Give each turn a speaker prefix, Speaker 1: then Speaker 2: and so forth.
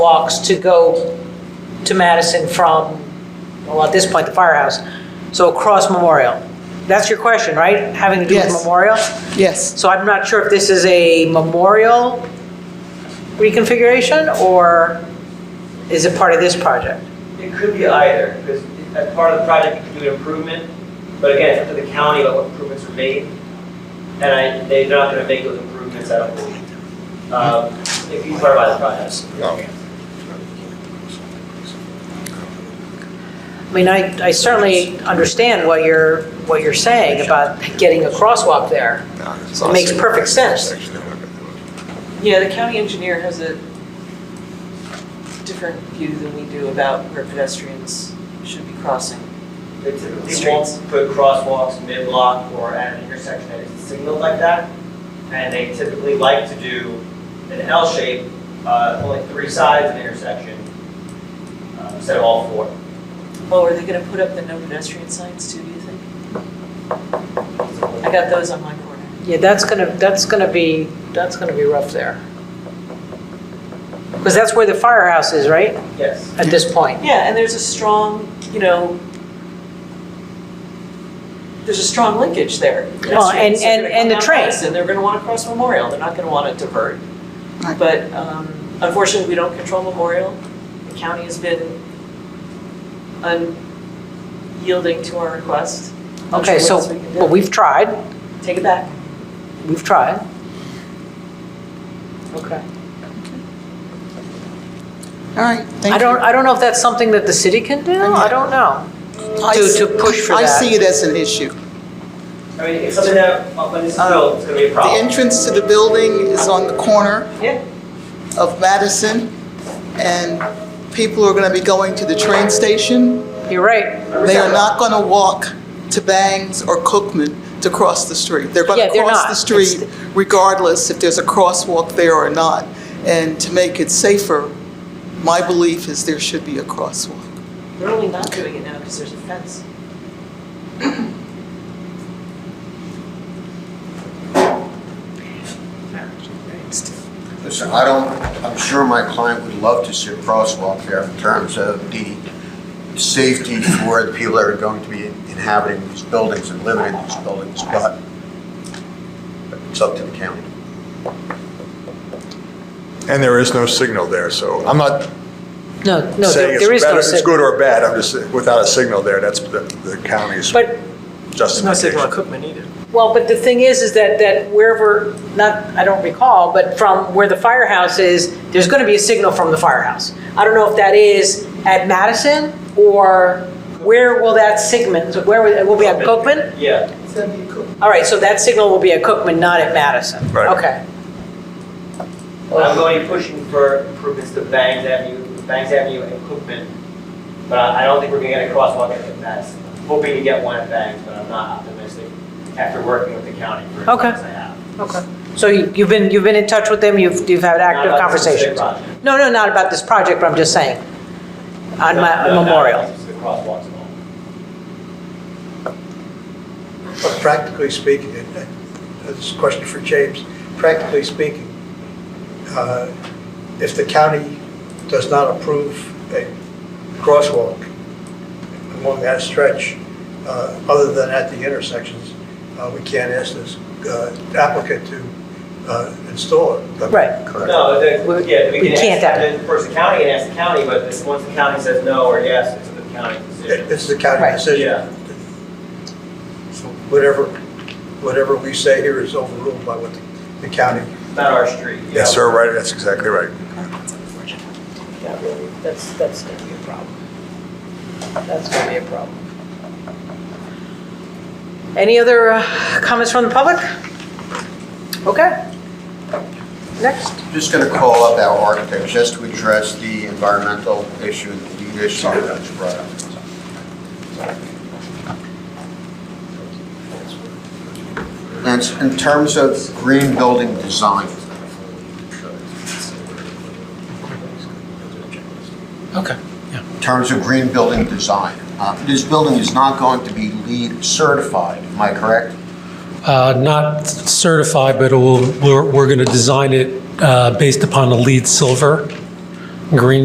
Speaker 1: walks to go to Madison from, well, at this point, the firehouse, so across Memorial. That's your question, right? Having to do with
Speaker 2: Yes.
Speaker 1: Memorial?
Speaker 2: Yes,
Speaker 1: So I'm not sure if this is a Memorial reconfiguration, or is it part of this project?
Speaker 3: It could be either, because as part of the project, you could do an improvement, but again, it's up to the county about what improvements are made. And I, they're not gonna make those improvements, I don't believe. Um, if you part of the project.
Speaker 4: Oh.
Speaker 1: I mean, I, I certainly understand what you're, what you're saying about getting a crosswalk there. It makes perfect sense.
Speaker 5: Yeah, the county engineer has a different view than we do about where pedestrians should be crossing.
Speaker 3: They typically
Speaker 5: Streets.
Speaker 3: won't put crosswalks mid-block or at an intersection that is signaled like that. And they typically like to do an L shape, uh, only three sides of the intersection, uh, instead of all four.
Speaker 5: Oh, are they gonna put up the no pedestrian signs too, do you think? I got those on my corner.
Speaker 1: Yeah, that's gonna, that's gonna be, that's gonna be rough there. Because that's where the firehouse is, right,
Speaker 3: Yes.
Speaker 1: at this point?
Speaker 5: Yeah, and there's a strong, you know, there's a strong linkage there.
Speaker 1: Well, and-
Speaker 5: Pedestrians are gonna
Speaker 1: and- and
Speaker 5: come
Speaker 1: the
Speaker 5: down
Speaker 1: train.
Speaker 5: Madison, They're gonna wanna cross Memorial, they're not gonna wanna divert.
Speaker 2: Right.
Speaker 5: But um, unfortunately, we don't control Memorial. The county has been unyielding to our request. Not
Speaker 1: Okay,
Speaker 5: sure
Speaker 1: so,
Speaker 5: what else we can do.
Speaker 1: well, we've tried,
Speaker 5: Take it back.
Speaker 1: we've tried. Okay.
Speaker 2: all right, thank you.
Speaker 1: I don't, I don't know if that's something that the city can do, I don't know.
Speaker 2: I
Speaker 1: to-
Speaker 2: s-
Speaker 1: to push for
Speaker 2: I
Speaker 1: that.
Speaker 2: see it as an issue.
Speaker 3: I mean, it's something that, uh, when this is
Speaker 5: Oh.
Speaker 3: built, it's gonna be a
Speaker 2: The
Speaker 3: problem.
Speaker 2: entrance to the building is on the corner
Speaker 5: Yeah.
Speaker 2: of Madison, and people are gonna be going to the train station.
Speaker 1: You're right,
Speaker 2: They are not gonna walk to Bangs or Cookman to cross the street. They're
Speaker 1: Yeah,
Speaker 2: gonna
Speaker 1: they're
Speaker 2: cross
Speaker 1: not.
Speaker 2: the
Speaker 1: It's
Speaker 2: street regardless if there's a crosswalk there or not. And to make it safer, my belief is there should be a crosswalk.
Speaker 5: They're only not doing it now because there's a fence.
Speaker 6: Listen, I don't, I'm sure my client would love to see a crosswalk there in terms of the safety for the people that are going to be inhabiting these buildings and living in these buildings, but it's up to the county.
Speaker 4: And there is no signal there, so I'm not
Speaker 1: no, no,
Speaker 4: saying
Speaker 1: there
Speaker 4: it's
Speaker 1: there is
Speaker 4: better,
Speaker 1: no
Speaker 4: it's
Speaker 1: signal.
Speaker 4: good or bad, I'm just, without a signal there, that's the the county's
Speaker 1: But,
Speaker 4: justification.
Speaker 3: Cookman either.
Speaker 1: well, but the thing is, is that, that wherever, not, I don't recall, but from where the firehouse is, there's gonna be a signal from the firehouse. I don't know if that is at Madison, or where will that signal, where, will- it will be at Cookman?
Speaker 3: Yeah.
Speaker 1: All right, so that signal will be at Cookman, not at Madison?
Speaker 4: Right.
Speaker 1: Okay,
Speaker 3: Well, I'm going to be pushing for improvements to Bangs Avenue, Bangs Avenue and Cookman, but I I don't think we're gonna get a crosswalk at Madison. Hoping to get one at Bangs, but I'm not optimistic after working with the county for as long
Speaker 1: Okay.
Speaker 3: as I have.
Speaker 1: okay. So you- you've been, you've been in touch with them, you've, you've had
Speaker 3: Not
Speaker 1: active
Speaker 3: about the specific
Speaker 1: conversations?
Speaker 3: project.
Speaker 1: No, no, not about this project, but I'm just saying, on
Speaker 3: No,
Speaker 1: my
Speaker 3: no, not
Speaker 1: memorial.
Speaker 3: about the crosswalks at all.
Speaker 7: But practically speaking, and that's a question for James, practically speaking, uh, if the county does not approve a crosswalk along that stretch, uh, other than at the intersections, uh, we can't ask this uh, applicant to uh, install it.
Speaker 1: Right.
Speaker 3: No, the,
Speaker 1: We-
Speaker 3: yeah, we
Speaker 1: we
Speaker 3: can
Speaker 1: can't
Speaker 3: ask, and then of course, the county can ask the county, but this, once the county says no or yes, it's the county's
Speaker 7: It-
Speaker 3: decision.
Speaker 7: It's the county
Speaker 1: Right.
Speaker 7: decision.
Speaker 3: Yeah.
Speaker 7: So Whatever, whatever we say here is overruled by what the- the county
Speaker 3: Not our street. you
Speaker 4: Yes,
Speaker 3: know?
Speaker 4: sir, right, that's exactly right.
Speaker 1: Yeah, really, that's, that's gonna be a problem. That's gonna be a problem. Any other uh, comments from the public? Okay. Next.
Speaker 6: Just gonna call up our architect just to address the environmental issue and the lead issue that you brought up. And in terms of green building design,
Speaker 8: Okay.
Speaker 6: in terms of green building design, uh, this building is not going to be LEED certified, am I correct?
Speaker 8: Uh, Not certified, but it will- we're we're going to design it uh, based upon a lead silver green